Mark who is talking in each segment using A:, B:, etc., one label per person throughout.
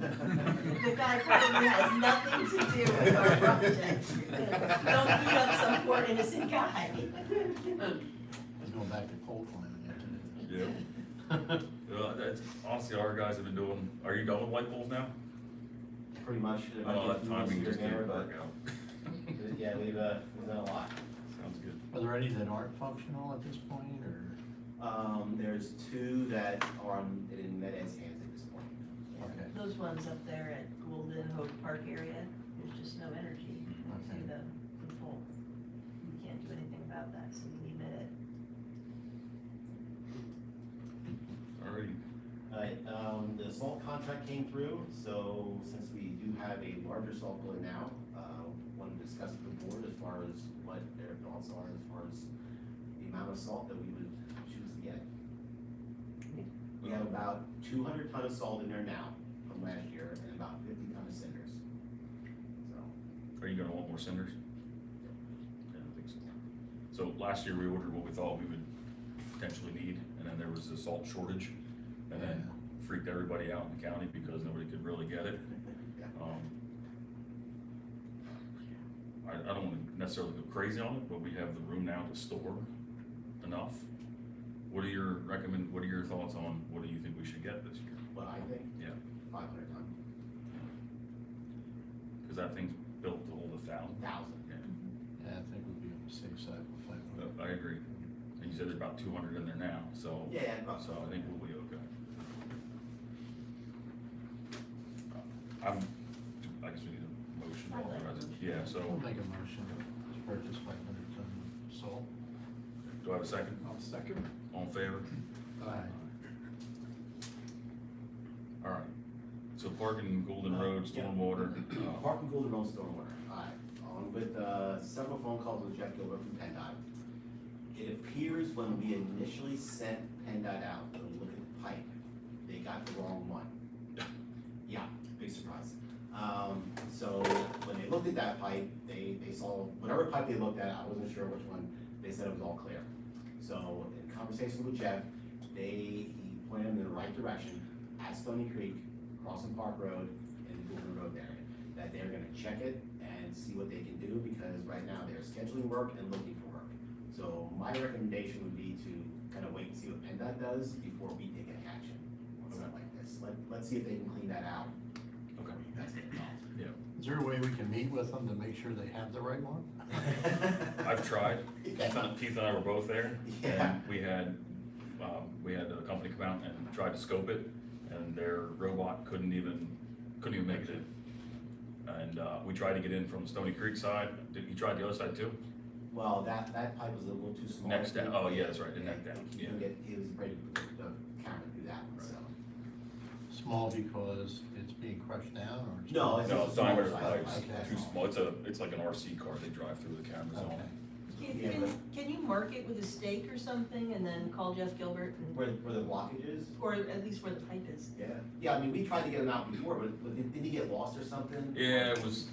A: The guy probably has nothing to do with our project. Don't beat up some poor innocent guy.
B: It's going back to coal climbing after
C: Yeah, well, that's, honestly, our guys have been doing, are you done with light poles now?
D: pretty much. it might
C: Oh,
D: get
C: that
D: few months
C: timing
D: here
C: just
D: and there,
C: didn't work
D: but-
C: out.
D: but Yeah, we've, uh, we've done a lot.
C: Sounds good.
B: that. Are there any that aren't functional at this point, or,
D: Um, there's two that are on- in Med Ed's hands at this point.
B: okay,
A: Those ones up there at Golden Hope Park area, there's just no energy to
B: okay.
A: the, the pole. We can't do anything about that, so we leave it
C: Alrighty,
D: Alright, um, the salt contract came through, so since we do have a larger salt bill now, uh, want to discuss with the board as far as what their thoughts are as far as the amount of salt that we would choose to get. We have about two hundred ton of salt in there now from last year and about fifty ton of cinders. So,
C: are you gonna want more cinders? Yeah, I think so. So last year we ordered what we thought we would potentially need, and then there was a salt shortage, and then freaked everybody out in the county because nobody could really get it.
D: Yeah.
C: Um, I, I don't wanna necessarily go crazy on it, but we have the room now to store enough. What are your recommend, what are your thoughts on, what do you think we should get this year?
D: what I think.
C: Yeah.
D: Five hundred ton,
C: Cause that thing's built to hold a thousand.
D: thousand.
B: Yeah, I think we'd be on the safe side with five hundred.
C: Uh, I agree. And you said there's about two hundred in there now, so,
D: Yeah, about
C: so
D: so.
C: I think we'll be okay. I'm, I guess we need a motion.
A: I'll let
C: otherwise-
A: you.
C: Yeah,
B: We'll
C: so,
B: make a motion to purchase five hundred ton salt.
C: do I have a second?
B: I'll second.
C: All in favor?
B: Aye.
C: All right. So parking, Golden Road,
D: Yeah.
C: Stormwater, uh,
D: Park and Golden Road Stormwater, alright, on with, uh, several phone calls with Jeff Gilbert from PennDOT. It appears when we initially sent PennDOT out to look at the pipe, they got the wrong one. Yeah, big surprise. Um, so when they looked at that pipe, they, they saw, whatever pipe they looked at, I wasn't sure which one, they said it was all clear. So in conversation with Jeff, they, he pointed them in the right direction, at Stony Creek, crossing Park Road, and Golden Road area that they're gonna check it and see what they can do, because right now they're scheduling work and looking for work. So my recommendation would be to kind of wait and see what PennDOT does before we take any action on something like this. Let, let's see if they can clean that out.
C: Okay.
D: You guys get involved.
B: Is there a way we can meet with them to make sure they have the right one?
C: I've tried. Keith and- Keith and I were both there.
D: Yeah.
C: And we had, um, we had a company come out and tried to scope it, and their robot couldn't even, couldn't even make it in. And, uh, we tried to get in from Stony Creek side, did, he tried the other side too?
D: Well, that, that pipe was a little too small.
C: Next down, oh yeah, that's right, the neck
D: Yeah,
C: down,
D: he
C: yeah.
D: couldn't get- He was afraid to put the camera through that one, so.
B: Small because it's being crushed down, or? it's-
D: No,
C: No, it's
D: just a
C: not,
D: smaller
C: it's
D: size pipe,
C: like
D: that's
C: too
D: all.
C: small, it's a, it's like an RC car, they drive through the cameras on.
B: Okay.
A: Can,
D: Yeah,
A: can, can you mark it with a stake or something and then call Jeff Gilbert and,
D: Where, where the blockage is,
A: or at least where the pipe is?
D: Yeah, yeah, I mean, we tried to get him out before, but, but did, did he get lost or something?
C: Yeah, it was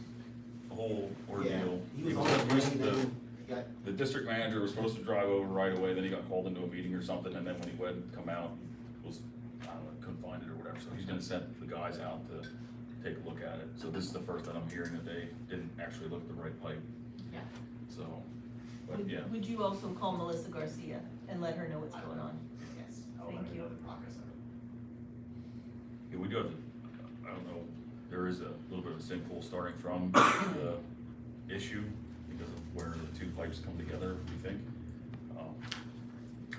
C: a whole ordeal.
D: Yeah, He was on
C: It
D: the
C: was-
D: plane,
C: the-
D: then he got,
C: The district manager was supposed to drive over right away, then he got called into a meeting or something, and then when he went and come out, he was, I don't know, couldn't find it or whatever, so he's gonna send the guys out to take a look at it. So this is the first that I'm hearing that they didn't actually look at the right pipe,
D: yeah,
C: so, but
A: Would-
C: yeah,
A: Would you also call Melissa Garcia and let her know what's
D: I
A: going on?
D: yes. I
A: Thank
D: wanted to
A: you.
D: know the progress of it.
C: Yeah, we do have, to- I don't know, there is a little bit of a sinkhole starting from the issue because of where the two pipes come together, we think. Um,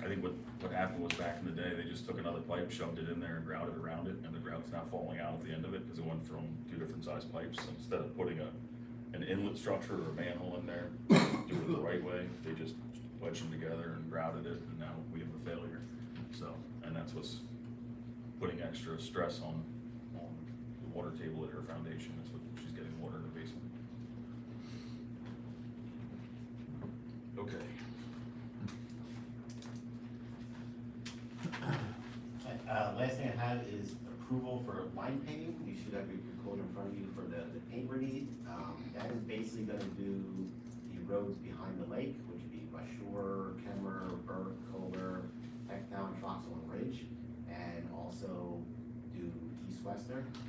C: I think what, what happened was back in the day, they just took another pipe, shoved it in there and grouted around it, and the grout's now falling out at the end of it because it went from two different sized pipes. So Instead of putting a, an inlet structure or a manhole in there, do it the right way, they just wedged them together and grouted it, and now we have a failure. So, and that's what's putting extra stress on, on the water table at her foundation, that's what, she's getting water in her basement. Okay.
D: Uh, Uh, last thing I had is approval for line painting, you should have your your quote in front of you for the, the paint we need. Um, that is basically gonna do the roads behind the lake, which would be West Shore, Kemmer, Burke, Kohler, Hecktown, Troxel, and Ridge. And also do East Western,